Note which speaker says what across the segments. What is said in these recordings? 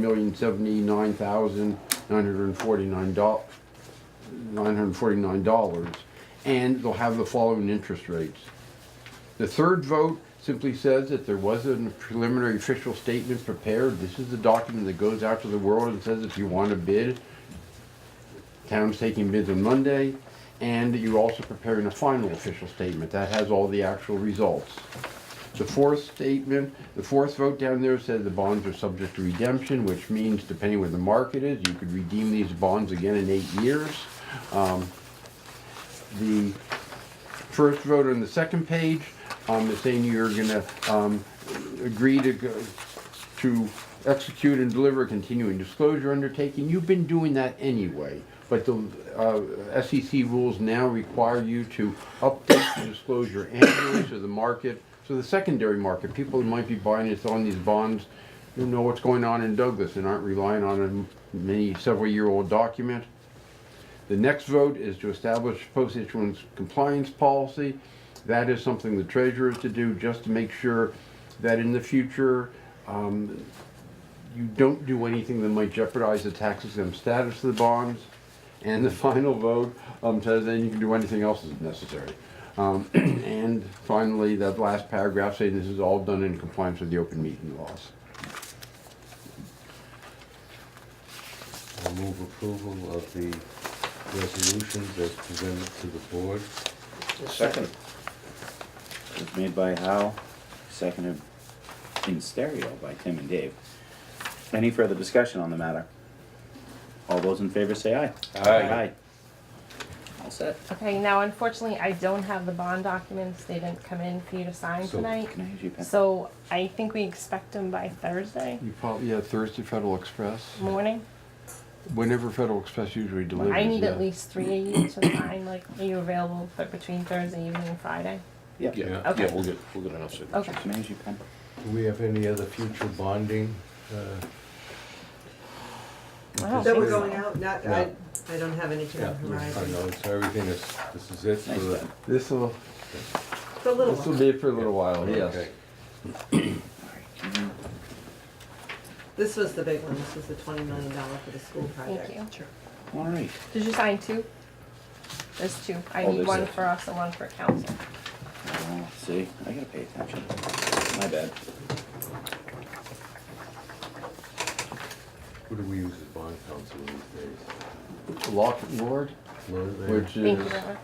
Speaker 1: million seventy-nine thousand nine hundred and forty-nine dollars, nine hundred and forty-nine dollars, and they'll have the following interest rates. The third vote simply says that there was a preliminary official statement prepared. This is the document that goes out to the world and says if you want to bid, town's taking bids on Monday, and you're also preparing a final official statement. That has all the actual results. The fourth statement, the fourth vote down there said the bonds are subject to redemption, which means depending where the market is, you could redeem these bonds again in eight years. Um, The first vote on the second page, um, is saying you're gonna, um, agree to go, to execute and deliver a continuing disclosure undertaking. You've been doing that anyway, but the, uh, SEC rules now require you to update the disclosure annually to the market, to the secondary market. People who might be buying it on these bonds, you know what's going on in Douglas and aren't relying on a many, several-year-old document. The next vote is to establish post-issuance compliance policy. That is something the treasurer is to do, just to make sure that in the future, um, you don't do anything that might jeopardize the tax exempt status of the bonds. And the final vote, um, says then you can do anything else that's necessary. Um, and finally, that last paragraph saying this is all done in compliance with the open meeting laws.
Speaker 2: I'll move approval of the resolutions as presented to the board.
Speaker 3: Second. It's made by Hal, seconded in stereo by Tim and Dave. Any further discussion on the matter? All those in favor say aye. Aye. All set.
Speaker 4: Okay, now unfortunately, I don't have the bond documents, they didn't come in for you to sign
Speaker 2: So,
Speaker 4: tonight.
Speaker 3: Can I use your pen?
Speaker 4: So I think we expect them by Thursday
Speaker 1: You probably, yeah, Thursday Federal Express,
Speaker 4: morning.
Speaker 1: whenever Federal Express usually delivers.
Speaker 4: I need
Speaker 1: yeah.
Speaker 4: at least three of you to sign, like, are you available for- between Thursday evening and Friday?
Speaker 3: Yep. Can
Speaker 5: Yeah,
Speaker 4: Okay.
Speaker 5: yeah, we'll get, we'll get enough signatures.
Speaker 4: Okay.
Speaker 3: I use your pen?
Speaker 2: Do we have any other future bonding? uh,
Speaker 4: I don't
Speaker 6: That
Speaker 4: think
Speaker 6: we're
Speaker 4: so.
Speaker 6: going out, not, I, I don't have any
Speaker 2: Yeah,
Speaker 6: time
Speaker 2: I
Speaker 6: horizon.
Speaker 2: know, it's everything is, this is it for
Speaker 3: Nice
Speaker 2: the.
Speaker 3: pen.
Speaker 1: This'll,
Speaker 6: The little
Speaker 1: this'll
Speaker 6: one.
Speaker 1: be for a little while, yes.
Speaker 2: Okay.
Speaker 3: Mm-hmm.
Speaker 6: This was the big one. This was the twenty million dollar for the school project.
Speaker 4: Thank you.
Speaker 3: All right.
Speaker 4: Did you sign two? There's two, I
Speaker 3: Oh,
Speaker 4: need
Speaker 3: there's
Speaker 4: one
Speaker 3: a-
Speaker 4: for us and one for council.
Speaker 3: Well, Uh, see, I gotta pay attention. My bad.
Speaker 2: What do we use as bond counsel these days?
Speaker 1: Lock and Lord,
Speaker 2: What are they?
Speaker 1: which
Speaker 4: Thank you
Speaker 1: is.
Speaker 4: very much.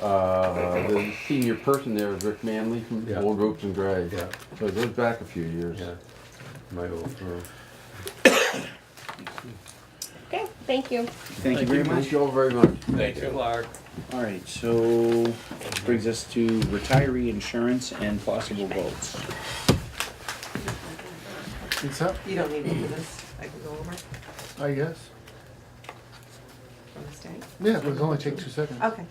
Speaker 1: Uh, the senior person there is Rick Manley from
Speaker 2: Yeah.
Speaker 1: Old Ropes and Gray.
Speaker 2: Yeah,
Speaker 1: So it goes back a few years.
Speaker 2: yeah, uh, my old firm.
Speaker 4: Okay, thank you.
Speaker 3: Thank you very
Speaker 1: Thank
Speaker 3: much.
Speaker 1: you all very much.
Speaker 5: Thank you, Lark.
Speaker 3: All right, so brings us to retiree insurance and possible votes.
Speaker 7: It's up,
Speaker 6: You don't need to do this. I can go over
Speaker 7: I guess.
Speaker 6: from the state.
Speaker 7: Yeah, but it'll only take two seconds.
Speaker 6: Okay,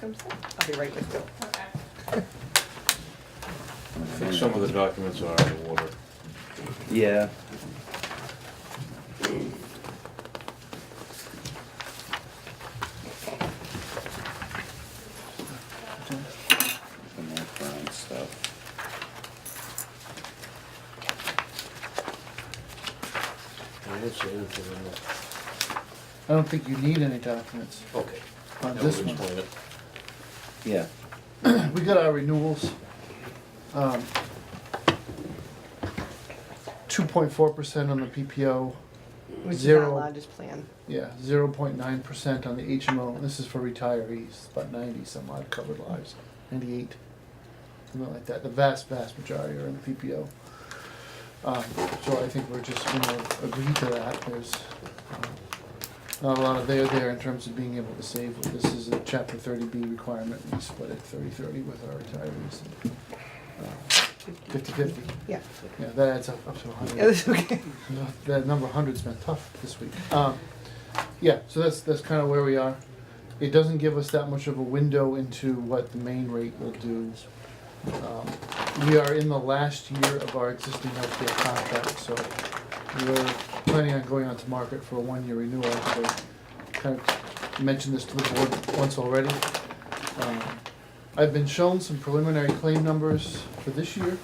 Speaker 4: Come sit.
Speaker 6: I'll be right with you.
Speaker 5: I think some of the documents are out of order.
Speaker 3: Yeah. The more current stuff.
Speaker 5: I didn't see anything in there.
Speaker 7: I don't think you need any documents
Speaker 5: Okay.
Speaker 7: on
Speaker 5: That would
Speaker 7: Uh, this one.
Speaker 5: explain it.
Speaker 3: Yeah,
Speaker 7: We got our renewals. Um, Two point four percent on the PPO,
Speaker 6: Which is our
Speaker 7: Zero.
Speaker 6: largest plan.
Speaker 7: yeah, zero point nine percent on the HMO. This is for retirees, about ninety some odd covered lives, ninety-eight, something like that. The vast, vast majority are in the PPO. Um, So I think we're just gonna agree to that. There's um, not a lot of there there in terms of being able to save. This is a chapter thirty B requirement. We split it 30-30 with our retirees. Fifty-fifty.
Speaker 6: Yeah.
Speaker 7: Yeah, that adds up up to a hundred.
Speaker 6: Yeah, that's okay.
Speaker 7: No, That number 100's been tough this week. Um, yeah, so that's that's kind of where we are. It doesn't give us that much of a window into what the main rate will do. Um, we are in the last year of our existing healthcare contract, so we're planning on going out to market for a one-year renewal. So, kind of mentioned this to the board once already. Um, I've been shown some preliminary claim numbers for this year.